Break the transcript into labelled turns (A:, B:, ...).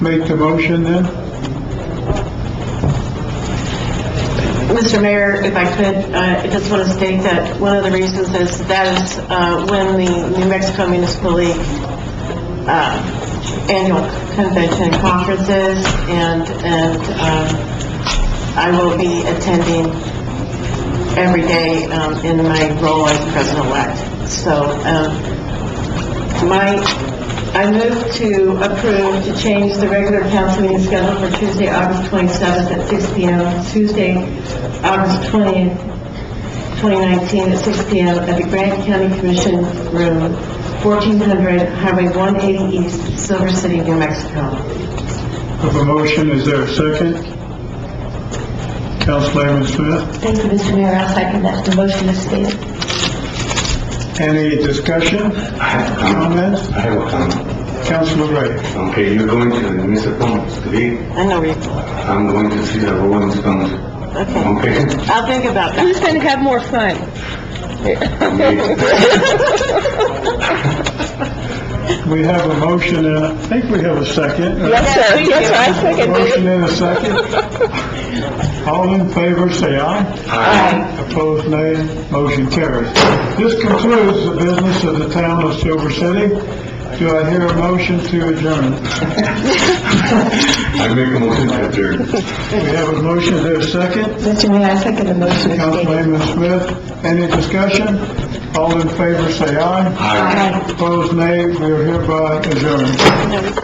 A: Make the motion then?
B: Mr. Mayor, if I could, uh, I just want to state that one of the reasons is that is uh, when the New Mexico Municipal League uh, annual convention and conferences, and, and um, I will be attending every day um, in my role as president-elect. So um, my, I move to approve to change the regular council meeting schedule for Tuesday, August 27th at 6 PM, Tuesday, August 20th, 2019 at 6 PM at the Grant County Commission Room, 1400 Highway 180 East, Silver City, New Mexico.
A: Have a motion, is there a second? Councilman Smith,
C: Thank you, Mr. Mayor, I'll second that, the motion is stated.
A: any discussion,
D: I have a comment.
A: comments?
D: I have a comment.
A: Councilman Ray,
D: Okay, you're going to the municipal today,
B: I know where you're going.
D: I'm going to see the road is coming.
B: Okay.
D: Okay?
B: I'll think about that.
E: Who's going to have more fun?
A: we have a motion, and I think we have a second.
E: Yes, sir. Yes, I second
A: Motion
E: it.
A: and a second. All in favor, say aye.
D: Aye.
A: Opposed, nay. Motion carries. This concludes the business of the town of Silver City. Do I hear a motion to adjourn?
D: I make a motion to adjourn.
A: We have a motion, is there a second?
C: Mr. Mayor, I second the motion is stated.
A: Councilman Smith, any discussion? All in favor, say aye.
D: Aye.
A: Opposed, nay. We are hereby adjourned.